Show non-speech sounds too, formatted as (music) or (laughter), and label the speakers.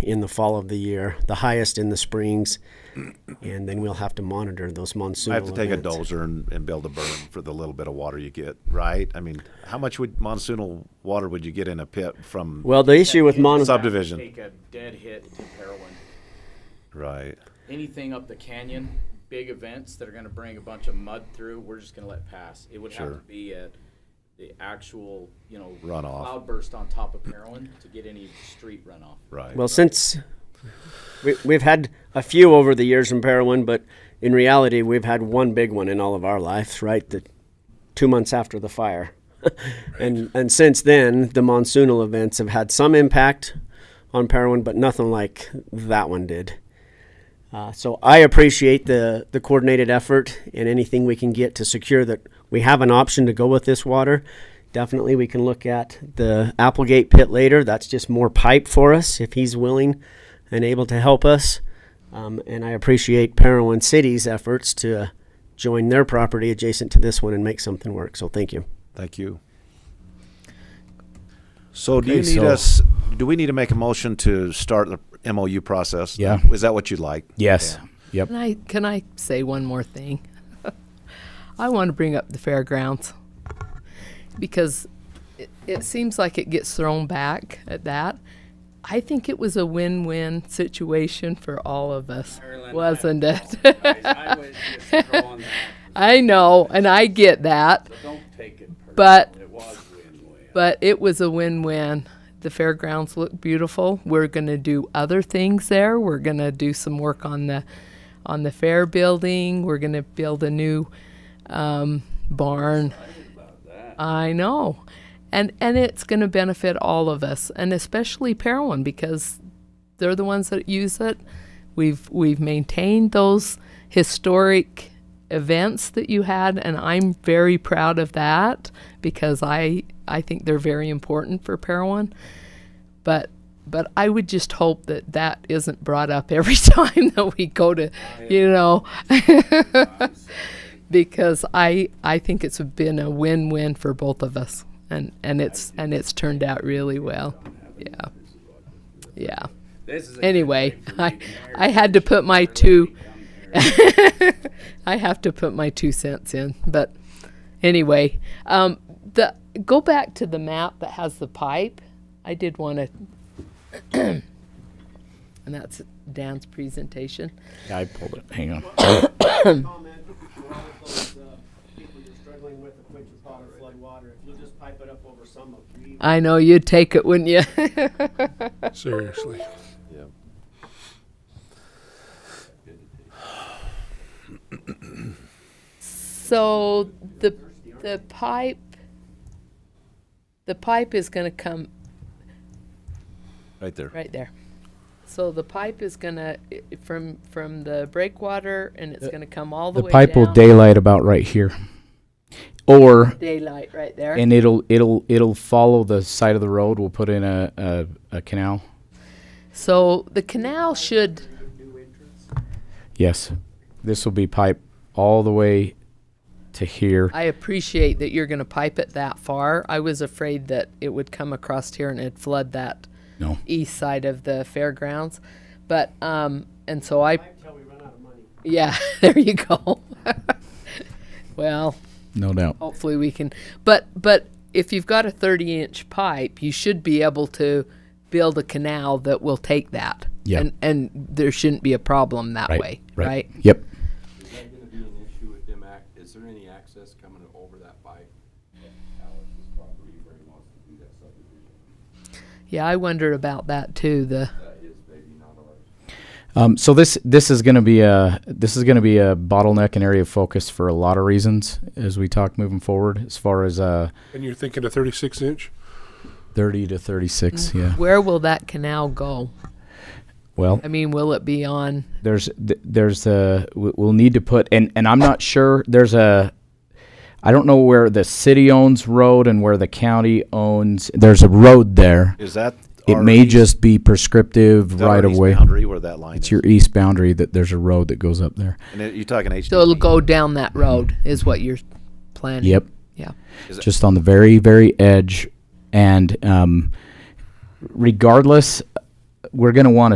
Speaker 1: in the fall of the year, the highest in the springs, and then we'll have to monitor those monsoon.
Speaker 2: I have to take a
Speaker 1: events.
Speaker 2: dozer and, and build a berm for the little bit of water you get, right? I mean, how much would monsoonal water would you get in a pit from
Speaker 1: Well, the issue with mon-
Speaker 2: Subdivision.
Speaker 3: Take a dead hit to heroin.
Speaker 2: right?
Speaker 3: Anything up the canyon, big events that are gonna bring a bunch of mud through, we're just gonna let pass. It would have
Speaker 2: Sure.
Speaker 3: to be at the actual, you know.
Speaker 2: Runoff.
Speaker 3: Cloudburst on top of heroin to get any street runoff.
Speaker 2: Right.
Speaker 1: well, since we, we've had a few over the years in Parowan, but in reality, we've had one big one in all of our lives, right? The two months after the fire, (laughs) and and since then, the monsoonal events have had some impact on Parowan, but nothing like that one did. Uh, so I appreciate the, the coordinated effort and anything we can get to secure that we have an option to go with this water. Definitely, we can look at the Applegate pit later. That's just more pipe for us if he's willing and able to help us. Um, and I appreciate Parowan City's efforts to join their property adjacent to this one and make something work. So thank you.
Speaker 2: Thank you. So do you
Speaker 4: Okay,
Speaker 2: need
Speaker 4: so-
Speaker 2: us, do we need to make a motion to start the MOU process?
Speaker 4: Yeah.
Speaker 2: Is that what you'd like?
Speaker 4: Yes. Yep.
Speaker 5: Can I can I say one more thing? (laughs) I want to bring up the fairgrounds because it, it seems like it gets thrown back at that. I think it was a win-win situation for all of us, wasn't it?
Speaker 3: I was just throwing that,
Speaker 5: (laughs) I know, and I get that,
Speaker 3: don't take it
Speaker 5: but
Speaker 3: It was win-win.
Speaker 5: but it was a win-win. The fairgrounds look beautiful. We're going to do other things there. We're going to do some work on the on the fair building. We're going to build a new um, barn. I know, and and it's going to benefit all of us, and especially Parowan because they're the ones that use it. We've we've maintained those historic events that you had, and I'm very proud of that because I I think they're very important for Parowan. But but I would just hope that that isn't brought up every (laughs) time that we go to, you know, because I I think it's been a win-win for both of us, and and it's and it's turned out really well. Yeah. Yeah anyway, (laughs) I, I had to put my two. (laughs) I have to put my two cents in, but anyway, um, the go back to the map that has the pipe. I did want (clears throat) to, and that's Dan's presentation.
Speaker 4: Yeah, I pulled it. Hang on.
Speaker 1: comment for all of those uh, people you're struggling with, the Quinch's Bottom flood water, if you'll just pipe it up over some of we
Speaker 5: I know you'd take it, wouldn't you? (laughs)
Speaker 6: Seriously.
Speaker 5: So the, the pipe, the pipe is going to come
Speaker 2: Right there.
Speaker 5: Right there. So the pipe is gonna, i- from, from the breakwater, and it's gonna come all the
Speaker 4: The
Speaker 5: way
Speaker 4: pipe will
Speaker 5: down.
Speaker 4: daylight about right here, or
Speaker 5: Daylight right there.
Speaker 4: and it'll it'll it'll follow the side of the road. We'll put in a a, a canal.
Speaker 5: So the canal should,
Speaker 4: Yes, this will be pipe all the way to here.
Speaker 5: I appreciate that you're gonna pipe it that far. I was afraid that it would come across here and it'd flood that
Speaker 4: No.
Speaker 5: east side of the fairgrounds. But, um, and so I,
Speaker 1: Until we run out of money.
Speaker 5: yeah, (laughs) there you go. (laughs) Well,
Speaker 4: No doubt.
Speaker 5: hopefully we can but but if you've got a 30 inch pipe you should be able to build a canal that will take that
Speaker 4: Yeah.
Speaker 5: and and there shouldn't be a problem that
Speaker 4: Right.
Speaker 5: way
Speaker 4: Right.
Speaker 5: right
Speaker 4: Yep.
Speaker 7: Is that gonna be an issue with them act, is there any access coming over that pipe? Alex's property where he wants to do that subdivision,
Speaker 5: yeah i wondered about that too the
Speaker 7: that is maybe not ours.
Speaker 4: Um, so this this is going to be a this is going to be a bottleneck and area of focus for a lot of reasons as we talk moving forward as far as uh,
Speaker 6: And you're thinking a 36 inch?
Speaker 4: 30 to 36. Yeah.
Speaker 5: where will that canal go
Speaker 4: Well,
Speaker 5: i mean will it be on
Speaker 4: there's th- there's a we- we'll need to put and and I'm not sure there's a I don't know where the city owns road and where the county owns. There's a road there.
Speaker 2: Is that?
Speaker 4: It
Speaker 2: our
Speaker 4: may
Speaker 2: east-
Speaker 4: just be prescriptive
Speaker 2: is that our
Speaker 4: right of
Speaker 2: east
Speaker 4: way.
Speaker 2: Boundary where that line
Speaker 4: It's
Speaker 2: is.
Speaker 4: your east boundary that there's a road that goes up there.
Speaker 2: And it- you're talking HDP.
Speaker 5: so it'll go down that road is what you're planning
Speaker 4: Yep.
Speaker 5: yeah
Speaker 4: just on the very very edge and um, regardless we're going to want to